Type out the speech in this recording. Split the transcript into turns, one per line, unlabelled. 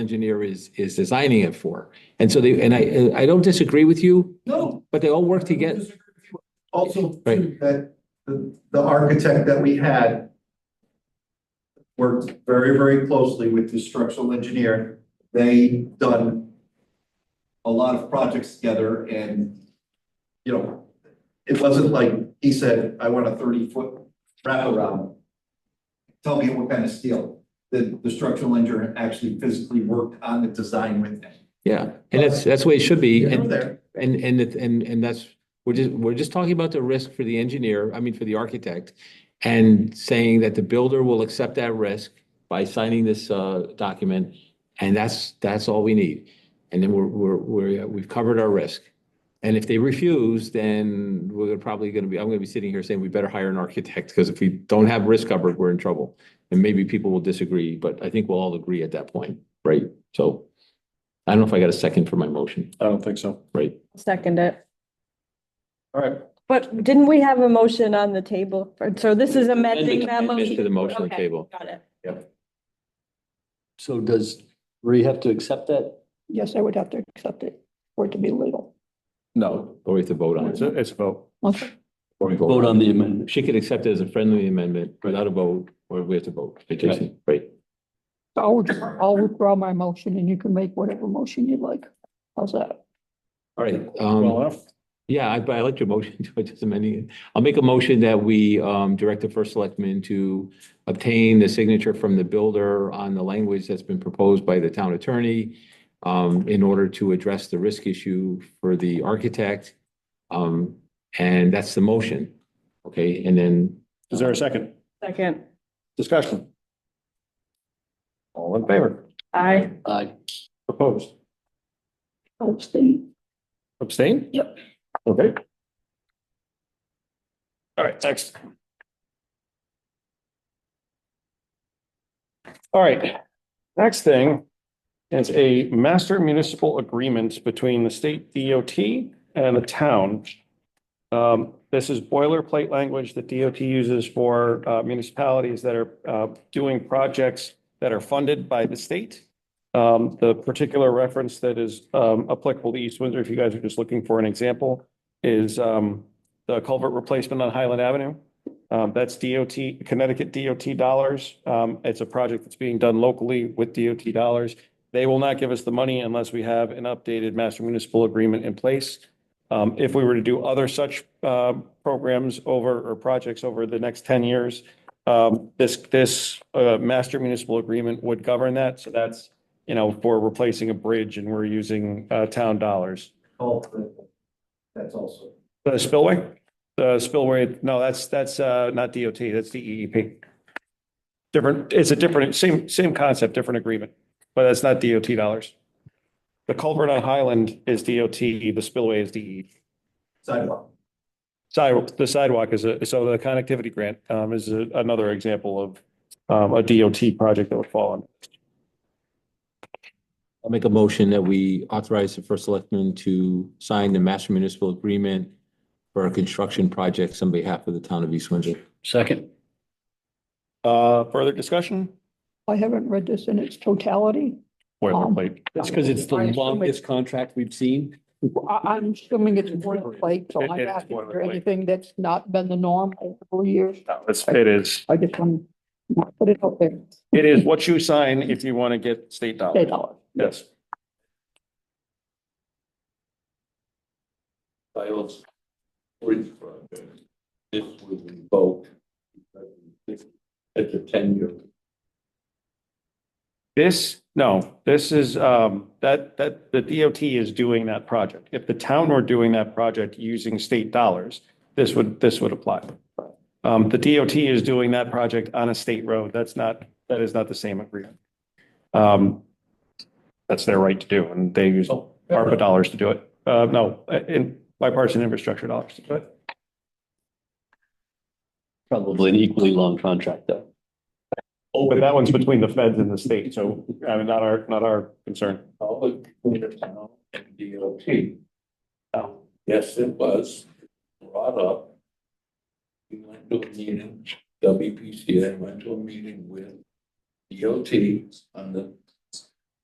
engineer is, is designing it for. And so they, and I, I don't disagree with you,
No.
but they all work together.
Also, too,
Right.
that the, the architect that we had worked very, very closely with the structural engineer. They done a lot of projects together and, you know, it wasn't like he said, I want a thirty-foot wraparound. Tell me what kind of steel. The, the structural engineer actually physically worked on the design with them.
Yeah, and that's, that's the way it should be.
They were
And,
there.
and, and, it- and, and that's, we're just, we're just talking about the risk for the engineer, I mean, for the architect. And saying that the builder will accept that risk by signing this, uh, document. And that's, that's all we need. And then we're, we're, we're, uh, we've covered our risk. And if they refuse, then we're probably gonna be, I'm gonna be sitting here saying we better hire an architect, because if we don't have risk covered, we're in trouble. And maybe people will disagree, but I think we'll all agree at that point, right? So I don't know if I got a second for my motion,
I don't think so.
right?
Second it.
All right.
But didn't we have a motion on the table? for- So this is amending that
Amendment To the
motion?
motion on the
Okay.
table.
Got it.
So does Bree have to accept that?
Yes, I would have to accept it for it to be legal.
No,
Or we have to vote on
it's
it.
a, it's a vote.
Or we
Vote on the amendment.
She could accept it as a friendly amendment without a vote, or we have to vote. Right, Jason? Right.
So I'll, withdraw- I'll withdraw my motion and you can make whatever motion you'd like. How's that?
All right.
Well, uh,
Um,
enough.
yeah, I, but I like your motion to just amending it. I'll make a motion that we, um, direct the first selectman to obtain the signature from the builder on the language that's been proposed by the town attorney um, in order to address the risk issue for the architect. Um, and that's the motion. Okay, and then
is there a second
Second.
discussion? All in favor?
Aye.
Aye. Opposed?
I'll abstain.
Abstain? Yep. Okay. All right, next. All right, next thing is a master municipal agreement between the state DOT and the town. Um, this is boilerplate language that DOT uses for uh, municipalities that are uh, doing projects that are funded by the state. Um, the particular reference that is, um, applicable to East Windsor, if you guys are just looking for an example, is, um, the culvert replacement on Highland Avenue. Um, that's DOT, Connecticut DOT dollars. Um, it's a project that's being done locally with DOT dollars. They will not give us the money unless we have an updated master municipal agreement in place. Um, if we were to do other such, um, programs over, or projects over the next ten years, um, this, this, uh, master municipal agreement would govern that. So that's you know, for replacing a bridge and we're using uh town dollars.
Oh, That's also.
The spillway, the spillway, no, that's, that's uh not DOT, that's the EEP. Different, it's a different, same, same concept, different agreement, but that's not DOT dollars. The culvert on Highland is DOT, the spillway is DE.
sidewalk.
Sidewalk, the sidewalk is a, so the connectivity grant um is a- another example of um a DOT project that would fall on.
I'll make a motion that we authorize the first selectman to sign the master municipal agreement for construction projects on behalf of the town of East Windsor.
Second,
Uh, further discussion?
I haven't read this in its totality.
Boilerplate.
that's because it's the
I assume
longest contract we've seen.
I, I'm assuming it's boilerplate, so
It-
I'm
it's
asking for
boilerplate.
anything that's not been the norm over the years.
It is.
I just want to put it out there.
It is what you sign if you want to get state
Say
dollars.
dollars.
Yes.
I also. Bridge project. This was revoked. It's a ten year.
This, no, this is, um, that, that, the DOT is doing that project. If the town were doing that project using state dollars, this would, this would apply. Um, the DOT is doing that project on a state road. That's not, that is not the same agreement. Um, that's their right to do, and they use ARPA dollars to do it. Uh, no, in bipartisan infrastructure dollars to do it.
Probably an equally long contract though.
Oh, but that one's between the feds and the state, so, I mean, not our, not our concern.
Public, town, and DOT.
Oh.
Now, yes, it was brought up. We went to a meeting, WPCA went to a meeting with DOT on the